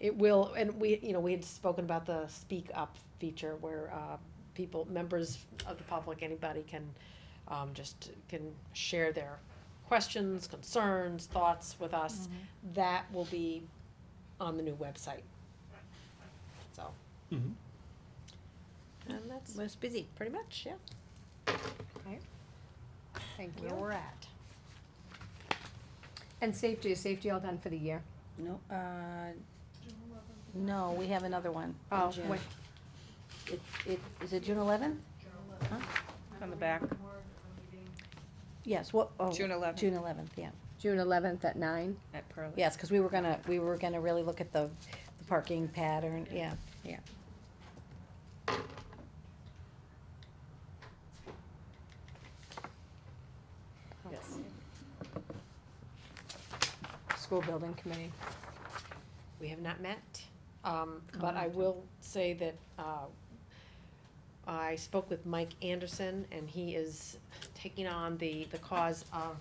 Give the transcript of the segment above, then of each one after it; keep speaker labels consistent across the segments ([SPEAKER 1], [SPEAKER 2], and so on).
[SPEAKER 1] It will, and we, you know, we had spoken about the speak up feature where, uh, people, members of the public, anybody can, um, just can share their questions, concerns, thoughts with us. That will be on the new website. So,
[SPEAKER 2] Mhm.
[SPEAKER 1] and that's
[SPEAKER 3] Was busy.
[SPEAKER 1] pretty much, yeah,
[SPEAKER 3] Thank
[SPEAKER 1] where
[SPEAKER 3] you.
[SPEAKER 1] we're at.
[SPEAKER 3] And safety, is safety all done for the year?
[SPEAKER 4] No, uh, no, we have another one. in
[SPEAKER 3] Oh,
[SPEAKER 4] June.
[SPEAKER 3] what,
[SPEAKER 4] It, it, is it June eleventh?
[SPEAKER 5] On the back,
[SPEAKER 4] Yes, what, oh.
[SPEAKER 5] June 11th.
[SPEAKER 4] June eleventh, yeah.
[SPEAKER 3] June eleventh at nine?
[SPEAKER 5] at Pearly.
[SPEAKER 4] Yes, cause we were gonna, we were gonna really look at the, the parking pattern, yeah, yeah.
[SPEAKER 1] Yes.
[SPEAKER 3] School building committee.
[SPEAKER 1] We have not met, um, but I will say that, uh, I spoke with Mike Anderson and he is taking on the, the cause of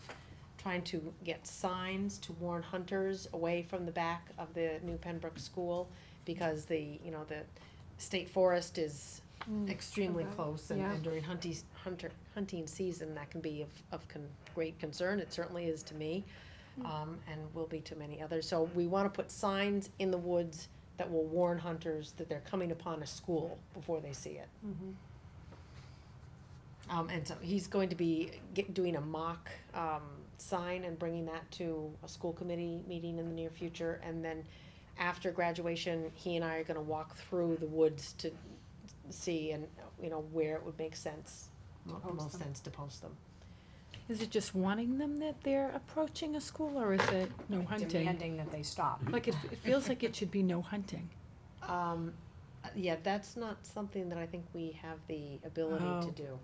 [SPEAKER 1] trying to get signs to warn hunters away from the back of the new Pembroke school because the, you know, the state forest is extremely
[SPEAKER 3] okay.
[SPEAKER 1] close and
[SPEAKER 3] Yeah.
[SPEAKER 1] and during hunting, hunter, hunting season, that can be of, of con- great concern. It certainly is to me
[SPEAKER 3] Mm.
[SPEAKER 1] um, and will be to many others. So we want to put signs in the woods that will warn hunters that they're coming upon a school before they see it.
[SPEAKER 3] Mm-hmm.
[SPEAKER 1] Um, and so he's going to be get, doing a mock um, sign and bringing that to a school committee meeting in the near future. And then after graduation, he and I are going to walk through the woods to see and you know where it would make sense, mo- most sense to post them.
[SPEAKER 6] Is it just wanting them that they're approaching a school, or is it no hunting?
[SPEAKER 3] Demanding that they stop.
[SPEAKER 6] Like, it, it feels like it should be no hunting.
[SPEAKER 1] Um, uh, yeah, that's not something that I think we have the ability
[SPEAKER 6] Oh.
[SPEAKER 1] to do.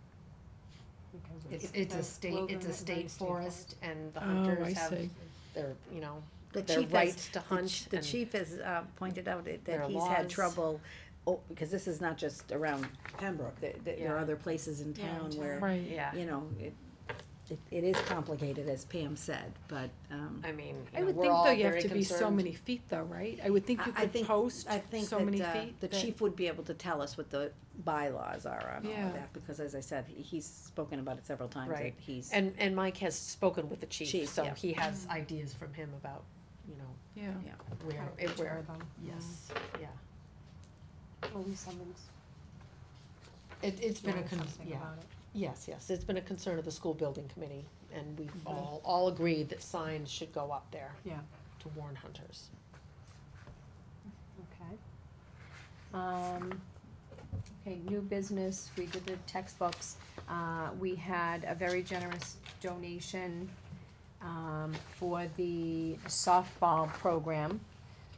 [SPEAKER 3] because of
[SPEAKER 1] It's,
[SPEAKER 3] the
[SPEAKER 1] it's a state, it's a
[SPEAKER 3] wilderness-
[SPEAKER 1] state forest and the
[SPEAKER 6] Oh, I
[SPEAKER 1] hunters have
[SPEAKER 6] see.
[SPEAKER 1] their, you know,
[SPEAKER 4] The
[SPEAKER 1] their
[SPEAKER 4] chief has,
[SPEAKER 1] rights to
[SPEAKER 4] the ch-
[SPEAKER 1] hunt
[SPEAKER 4] the
[SPEAKER 1] and-
[SPEAKER 4] chief has, uh, pointed out that-
[SPEAKER 1] There
[SPEAKER 4] that
[SPEAKER 1] are
[SPEAKER 4] he's had
[SPEAKER 1] laws.
[SPEAKER 4] trouble, oh, because this is not just around Pembroke, there, there- there are
[SPEAKER 1] Yeah.
[SPEAKER 4] other places in
[SPEAKER 1] Yeah,
[SPEAKER 4] town
[SPEAKER 1] in
[SPEAKER 4] where,
[SPEAKER 6] Right.
[SPEAKER 1] yeah,
[SPEAKER 4] you know, it, it, it is complicated, as Pam said, but, um,
[SPEAKER 1] I mean, you
[SPEAKER 6] I
[SPEAKER 1] know,
[SPEAKER 6] would
[SPEAKER 1] we're
[SPEAKER 6] think
[SPEAKER 1] all
[SPEAKER 6] though you have
[SPEAKER 1] very
[SPEAKER 6] to be so
[SPEAKER 1] concerned.
[SPEAKER 6] many feet though, right? I would think you
[SPEAKER 4] I- I
[SPEAKER 6] could
[SPEAKER 4] think-
[SPEAKER 6] post
[SPEAKER 4] I think
[SPEAKER 6] so
[SPEAKER 4] that,
[SPEAKER 6] many
[SPEAKER 4] uh,
[SPEAKER 6] feet.
[SPEAKER 4] The
[SPEAKER 6] that-
[SPEAKER 4] chief would be able to tell us what the bylaws are on all
[SPEAKER 6] Yeah.
[SPEAKER 4] of that, because as I said, he- he's spoken about it several times, that
[SPEAKER 1] Right.
[SPEAKER 4] he's,
[SPEAKER 1] And, and Mike has spoken with the chief,
[SPEAKER 4] Chief,
[SPEAKER 1] so
[SPEAKER 4] yeah.
[SPEAKER 1] he has ideas from him about, you know,
[SPEAKER 6] Yeah.
[SPEAKER 1] where,
[SPEAKER 3] Right,
[SPEAKER 1] it where,
[SPEAKER 3] them.
[SPEAKER 1] yes, yeah.
[SPEAKER 3] Police summons.
[SPEAKER 1] It, it's been a,
[SPEAKER 3] doing
[SPEAKER 1] con-
[SPEAKER 3] something
[SPEAKER 1] yeah,
[SPEAKER 3] about it.
[SPEAKER 1] yes, yes, it's been a concern of the school building committee, and we've all, all agreed that signs should go up there.
[SPEAKER 3] Mm-hmm. Yeah.
[SPEAKER 1] To warn hunters.
[SPEAKER 3] Okay. Um, okay, new business, we did the textbooks, uh, we had a very generous donation, um, for the softball program.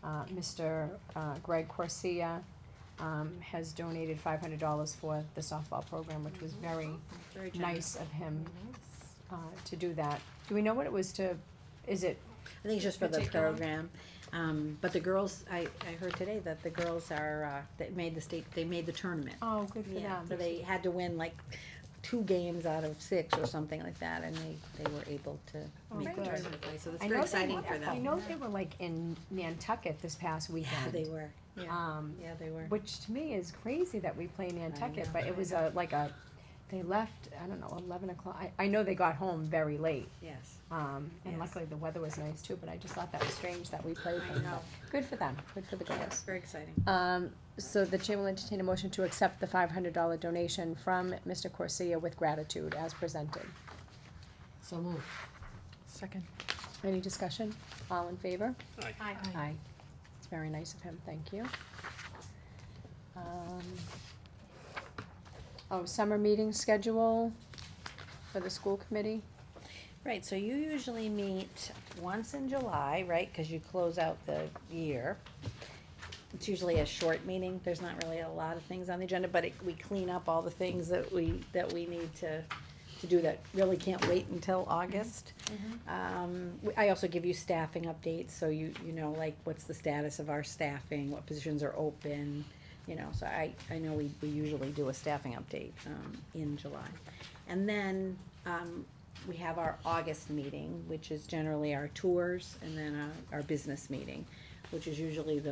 [SPEAKER 3] Uh, Mr. uh, Greg Corsia, um, has donated five hundred dollars for the softball program, which was very
[SPEAKER 4] Very
[SPEAKER 3] nice of him, uh, to do that. Do we know what it was to, is it
[SPEAKER 4] I think it's just for the
[SPEAKER 3] Particular.
[SPEAKER 4] program. Um, but the girls, I, I heard today that the girls are, uh, that made the state, they made the tournament.
[SPEAKER 3] Oh, good for
[SPEAKER 4] Yeah,
[SPEAKER 3] them.
[SPEAKER 4] so they had to win like two games out of six or something like that, and they, they were able to
[SPEAKER 3] Oh,
[SPEAKER 4] make the
[SPEAKER 3] good.
[SPEAKER 4] tournament play, so it's
[SPEAKER 3] I
[SPEAKER 4] very
[SPEAKER 3] know they
[SPEAKER 4] exciting
[SPEAKER 3] were-
[SPEAKER 4] for
[SPEAKER 3] I
[SPEAKER 4] them.
[SPEAKER 3] know they were like in Nantucket this past
[SPEAKER 4] Yeah, They
[SPEAKER 3] weekend.
[SPEAKER 4] were, yeah,
[SPEAKER 3] Um,
[SPEAKER 4] yeah, they were.
[SPEAKER 3] which to me is crazy that we play Nantucket,
[SPEAKER 4] know,
[SPEAKER 3] but
[SPEAKER 4] I
[SPEAKER 3] it was a, like a, they left, I don't know, eleven o'clock. I, I know they got home very late.
[SPEAKER 4] Yes.
[SPEAKER 3] Um, and
[SPEAKER 4] Yes.
[SPEAKER 3] luckily the weather was nice too, but I just thought that was strange that we played
[SPEAKER 4] I
[SPEAKER 3] them.
[SPEAKER 4] know.
[SPEAKER 3] but Good for them, good for the girls.
[SPEAKER 4] Very exciting.
[SPEAKER 3] Um, so the chair will entertain a motion to accept the five hundred dollar donation from Mr. Corsia with gratitude as presented.
[SPEAKER 1] So moved.
[SPEAKER 6] Second.
[SPEAKER 3] Any discussion? All in favor?
[SPEAKER 1] Aye.
[SPEAKER 3] Aye. It's very nice of him, thank you. Um, Oh, summer meeting schedule for the school committee?
[SPEAKER 4] Right, so you usually meet once in July, right, cause you close out the year. It's usually a short meeting, there's not really a lot of things on the agenda, but it, we clean up all the things that we, that we need to, to do that really can't wait until August. Um, we- I also give you staffing updates, so you, you know, like, what's the status of our staffing, what positions are open, you know, so I, I know we, we usually do a staffing update, um, in July. And then, um, we have our August uh, meeting, which is generally our tours, and then our, our business meeting, which is usually the